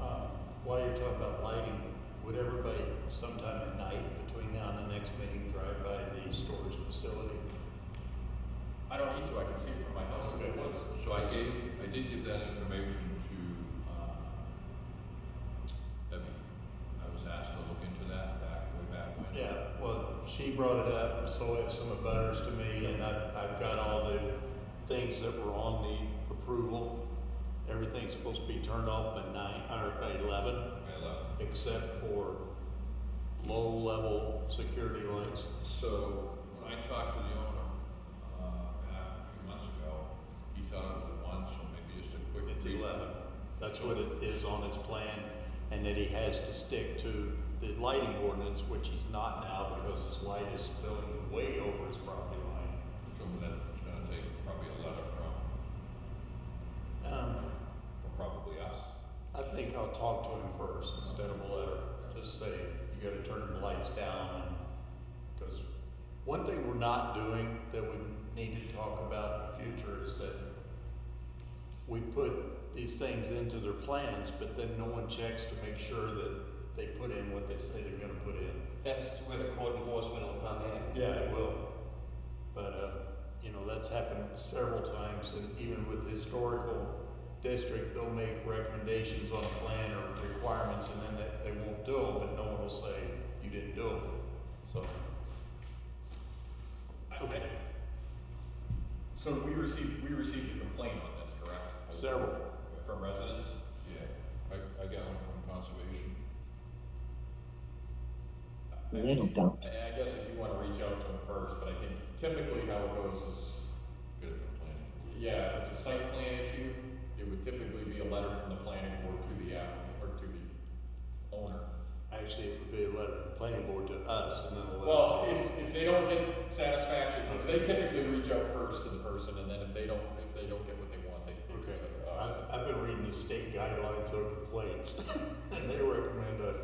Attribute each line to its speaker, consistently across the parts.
Speaker 1: Uh, talk about lighting, would everybody sometime at night between now and the next meeting drive by the storage facility?
Speaker 2: I don't need to, I can see it from my house in the woods.
Speaker 3: So I gave, I did give that information to, uh, Debbie. I was asked to look into that back, way back when.
Speaker 1: Yeah, well, she brought it up, so it some of butters to me, and I, I've got all the things that were on the approval. Everything's supposed to be turned off by nine, or by eleven,
Speaker 3: I love it.
Speaker 1: except for low-level security lights.
Speaker 3: So, when I talked to the owner, uh, back a few months ago, he thought it was one, so maybe just a quick.
Speaker 1: It's
Speaker 3: read.
Speaker 1: eleven. That's what it is on his plan, and that he has to stick to the lighting ordinance, which he's not now because his light is spilling way over his property line.
Speaker 3: So that's gonna take probably a letter from,
Speaker 1: Um,
Speaker 3: or probably us.
Speaker 1: I think I'll talk to him first instead of a letter. Just say, you gotta turn the lights down. Because one thing we're not doing that we need to talk about in the future is that we put these things into their plans, but then no one checks to make sure that they put in what they say they're gonna put in.
Speaker 4: That's where the code enforcement will come in.
Speaker 1: Yeah, it will. But, uh, you know, that's happened several times and even with historical district, they'll make recommendations on a plan or requirements and then they, they won't do them, but no one will say, you didn't do it. So,
Speaker 2: Okay. So we received, we received a complaint on this, correct?
Speaker 1: several.
Speaker 2: From residents?
Speaker 3: Yeah, I, I got one from conservation.
Speaker 2: I- I-
Speaker 5: Little dump.
Speaker 2: I I guess if you wanna reach out to them first, but I think typically how it goes is,
Speaker 3: Get it from planning.
Speaker 2: yeah, if it's a site plan issue, it would typically be a letter from the planning board to the applicant, or to the owner.
Speaker 1: Actually, it would be a letter from the planning board to us and then a letter.
Speaker 2: Well, if, if they don't get satisfaction, because they typically reach out first to the person, and then if they don't, if they don't get what they want, they they
Speaker 1: Okay,
Speaker 2: reach out to us.
Speaker 1: I've, I've been reading the state guidelines on complaints and they recommend a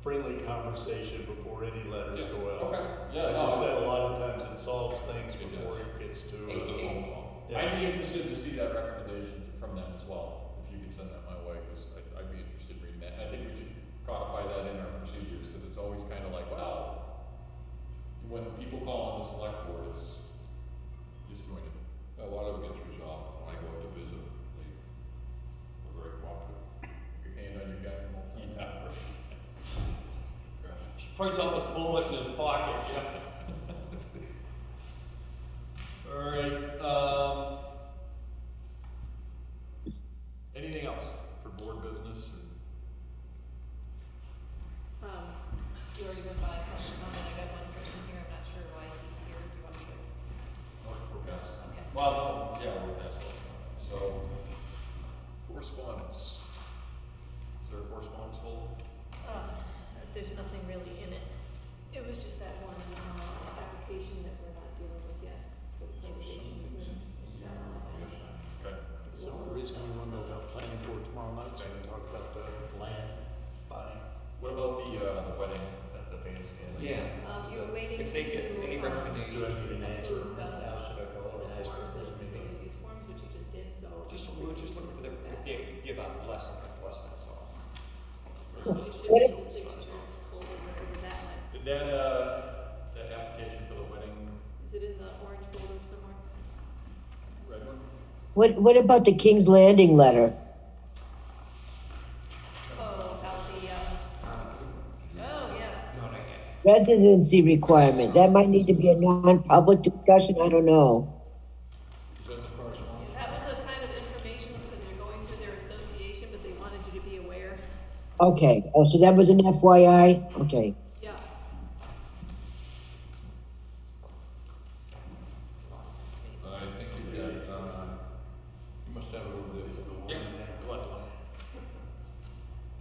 Speaker 1: friendly conversation before any letters
Speaker 2: Yeah,
Speaker 1: go out.
Speaker 2: Okay, yeah,
Speaker 1: I just
Speaker 2: no,
Speaker 1: said a lot of times it solves things
Speaker 3: It
Speaker 1: before it gets to.
Speaker 3: It was the
Speaker 1: uh,
Speaker 3: phone call.
Speaker 1: yeah.
Speaker 2: I'd be interested to see that recommendation from them as well, if you can send that my way, because I'd, I'd be interested in reading that. And I think we should codify that in our procedures, because it's always kind of like, wow, when people call on the select board, it's disjointed.
Speaker 3: A lot of it gets resolved, when I go out to visit, they, they're very cooperative.
Speaker 2: Your hand on your gun the whole time.
Speaker 4: She brings out the bullet in his pocket, Alright, um,
Speaker 2: Anything else for board business and?
Speaker 6: Um, you already went by a question, and I got one person here, I'm not sure why he's here, do you want me to?
Speaker 2: Yes.
Speaker 6: Okay.
Speaker 2: Well, yeah, we're past that. So, correspondence. Is there a correspondence hole?
Speaker 6: Um, there's nothing really in it. It was just that one, uh, application that we're not dealing with yet, with litigation.
Speaker 2: Okay.
Speaker 1: So the reason we want to know about planning board tomorrow night, so we can talk about the land buying.
Speaker 2: What about the, uh, the wedding at the bandstand?
Speaker 4: yeah.
Speaker 6: Um, you're waiting to.
Speaker 4: If they get any
Speaker 6: um,
Speaker 4: recommendations,
Speaker 1: Do I need an answer from
Speaker 6: approve,
Speaker 1: right now?
Speaker 6: uh,
Speaker 1: Should I call her and
Speaker 6: The
Speaker 1: ask her
Speaker 6: forms,
Speaker 1: for
Speaker 6: the
Speaker 1: a meeting?
Speaker 6: facilities use forms, which you just did, so.
Speaker 4: Just, we were just looking for the, if they give out less than that, less than that's all.
Speaker 6: You should be able to signature folder, whatever that one.
Speaker 2: Did that, uh, that application for the wedding?
Speaker 6: Is it in the orange folder somewhere?
Speaker 2: Red one?
Speaker 5: What, what about the King's Landing letter?
Speaker 6: Oh, about the, uh, oh, yeah.
Speaker 4: No, not yet.
Speaker 5: Residency requirement, that might need to be a non-public discussion, I don't know.
Speaker 3: Is that the correspondence?
Speaker 6: That was a kind of informational, because they're going through their association, but they wanted you to be aware.
Speaker 5: Okay, oh, so that was an FYI, okay.
Speaker 6: Yeah. Lost my space.
Speaker 3: Uh, I think you got, uh, you must have it over there.
Speaker 2: Yeah, the one.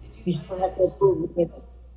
Speaker 6: Did you
Speaker 5: We
Speaker 6: find
Speaker 5: still
Speaker 6: it?
Speaker 5: have to approve the minutes.